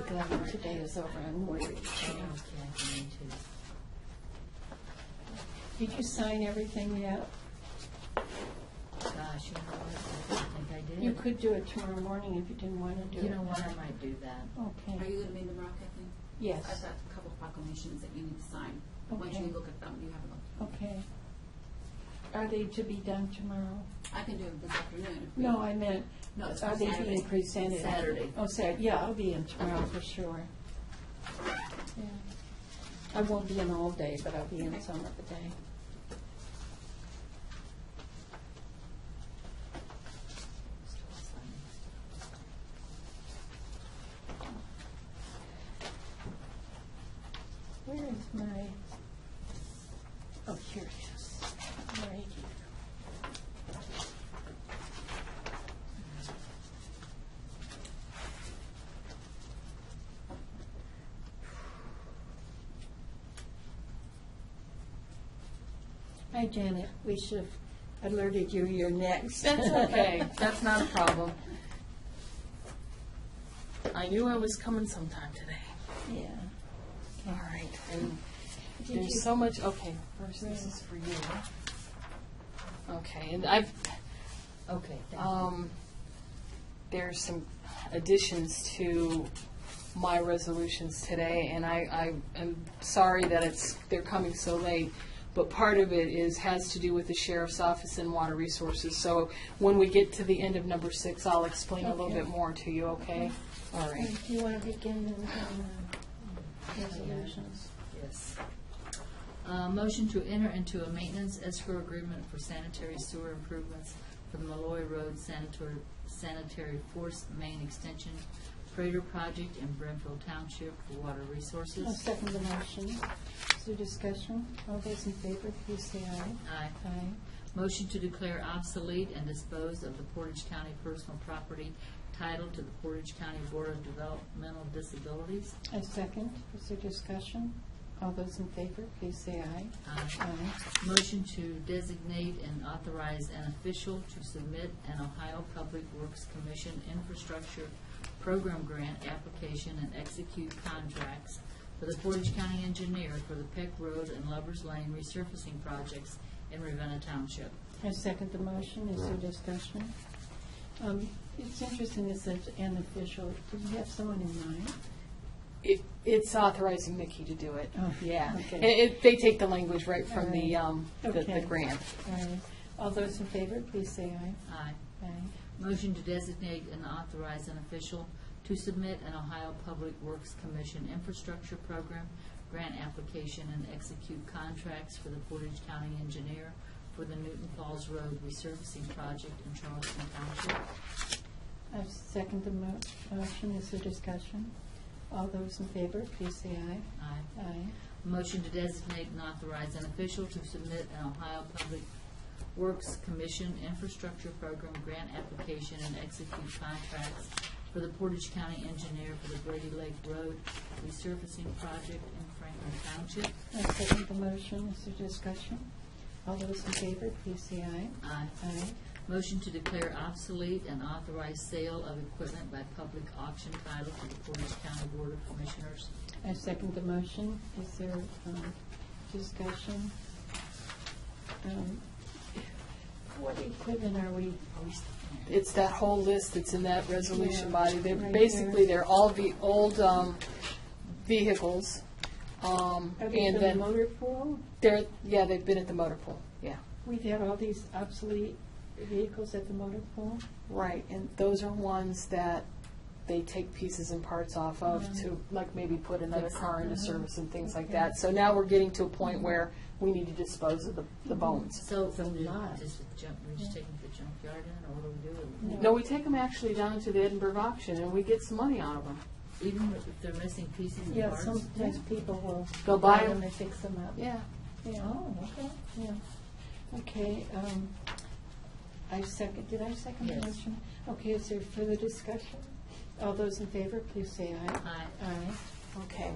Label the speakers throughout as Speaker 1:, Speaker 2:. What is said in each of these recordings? Speaker 1: day is over and we're. Did you sign everything yet?
Speaker 2: Gosh, you know what? I don't think I did.
Speaker 1: You could do it tomorrow morning if you didn't want to do it.
Speaker 2: You know what? I might do that.
Speaker 3: Are
Speaker 1: Okay,
Speaker 3: you gonna be in the rock, Kathleen? I've
Speaker 1: yes,
Speaker 3: got a couple of proclamations that you need to sign. Once you
Speaker 1: Okay.
Speaker 3: look at them, you have a look.
Speaker 1: okay. Are they to be done tomorrow?
Speaker 3: I can do it this afternoon. if we-
Speaker 1: No, I meant,
Speaker 3: No, it's
Speaker 1: are
Speaker 3: on
Speaker 1: they
Speaker 3: Saturday.
Speaker 1: being presented?
Speaker 2: Saturday.
Speaker 1: Oh, Saturday, yeah, I'll be in tomorrow for sure. Yeah. I won't be in all day, but I'll be in some of the day. Where is my, oh, here it is, right here. Hi Janet, we should have alerted you you're next.
Speaker 4: That's okay. That's not a problem. I knew I was coming sometime today.
Speaker 1: Yeah.
Speaker 4: All right. And
Speaker 1: Did you-
Speaker 4: there's so much, okay, first this is for you. Okay, and I've,
Speaker 2: Okay, thank you.
Speaker 4: um, there's some additions to my resolutions today, and I, I am sorry that it's, they're coming so late, but part of it is, has to do with the sheriff's office and water resources. So when we get to the end of number six, I'll explain a little
Speaker 1: Okay.
Speaker 4: bit more to you, okay? All right.
Speaker 1: Do you want to begin then with the resolutions?
Speaker 2: Yes. Uh, Motion to enter into a maintenance escrow agreement for sanitary sewer improvements for the Malloy Road sanitary, sanitary force main extension, Prater Project in Brimfield Township for water
Speaker 1: I'll
Speaker 2: resources.
Speaker 1: second the motion. Is there discussion? All those in favor, please say aye.
Speaker 2: Aye.
Speaker 1: Aye.
Speaker 2: Motion to declare obsolete and dispose of the Portage County personal property titled to the Portage County Board of Developmental Disabilities.
Speaker 1: I second. Is there discussion? All those in favor, please say aye.
Speaker 2: Aye.
Speaker 1: Aye.
Speaker 2: Uh, Motion to designate and authorize an official to submit an Ohio Public Works Commission Infrastructure Program Grant application and execute contracts for the Portage County Engineer for the Peck Road and Lovers Lane resurfacing projects in Ravenna Township.
Speaker 1: I second the motion. Is there discussion? Um, It's interesting it says an official. Did you have someone in mind?
Speaker 4: It, it's authorizing Mickey to do it.
Speaker 1: Oh,
Speaker 4: Yeah.
Speaker 1: okay.
Speaker 4: It, it- they take the language right from the,
Speaker 1: All right.
Speaker 4: um, the,
Speaker 1: Okay.
Speaker 4: the grant.
Speaker 1: Aye. All those in favor, please say aye.
Speaker 2: Aye.
Speaker 1: Aye.
Speaker 2: Motion to designate and authorize an official to submit an Ohio Public Works Commission Infrastructure Program grant application and execute contracts for the Portage County Engineer for the Newton Falls Road resurfacing project in Charleston Township.
Speaker 1: I second the mo- motion. Is there discussion? All those in favor, please say aye.
Speaker 2: Aye.
Speaker 1: Aye.
Speaker 2: Motion to designate and authorize an official to submit an Ohio Public Works Commission Infrastructure Program grant application and execute contracts for the Portage County Engineer for the Brady Lake Road resurfacing project in Franklin Township.
Speaker 1: I second the motion. Is there discussion? All those in favor, please say aye.
Speaker 2: Aye.
Speaker 1: Aye.
Speaker 2: Motion to declare obsolete and authorize sale of equipment by public auction title to the Portage County Board of Commissioners.
Speaker 1: I second the motion. Is there um, discussion? Um, What equipment are we,
Speaker 4: It's that whole list that's in that resolution
Speaker 1: Yeah,
Speaker 4: body. They're
Speaker 1: right
Speaker 4: basically,
Speaker 1: there.
Speaker 4: they're all the old um, vehicles. um,
Speaker 1: are they
Speaker 4: And
Speaker 1: for the
Speaker 4: then,
Speaker 1: motor pool?
Speaker 4: they're, yeah, they've been at the motor pool, yeah.
Speaker 1: We've had all these obsolete vehicles at the motor pool?
Speaker 4: Mm-hmm. Right, and those are ones that they take pieces and parts off of to, like, maybe put another Mm-hmm. car Mm-hmm. into service and things like that. So now we're getting to a point where we need to dispose of the- the bones.
Speaker 2: So,
Speaker 1: It's a lot.
Speaker 2: just the junk, we're just taking the junkyard in, or what do we do with them?
Speaker 4: No, we take them actually down to the Edinburgh auction and we get some money out of them.
Speaker 2: Even if they're missing pieces and
Speaker 1: Yeah,
Speaker 2: parts?
Speaker 1: sometimes people will.
Speaker 4: They'll buy
Speaker 1: When
Speaker 4: them.
Speaker 1: they fix them up.
Speaker 4: Yeah.
Speaker 1: Yeah,
Speaker 2: Oh, okay.
Speaker 1: yeah. Okay, um, I second, did I second the
Speaker 2: Yes.
Speaker 1: motion? Okay, is there further discussion? All those in favor, please say aye.
Speaker 2: Aye.
Speaker 1: Aye.
Speaker 4: Okay,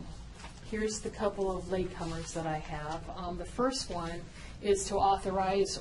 Speaker 4: here's the couple of latecomers that I have. Um, The first one is to authorize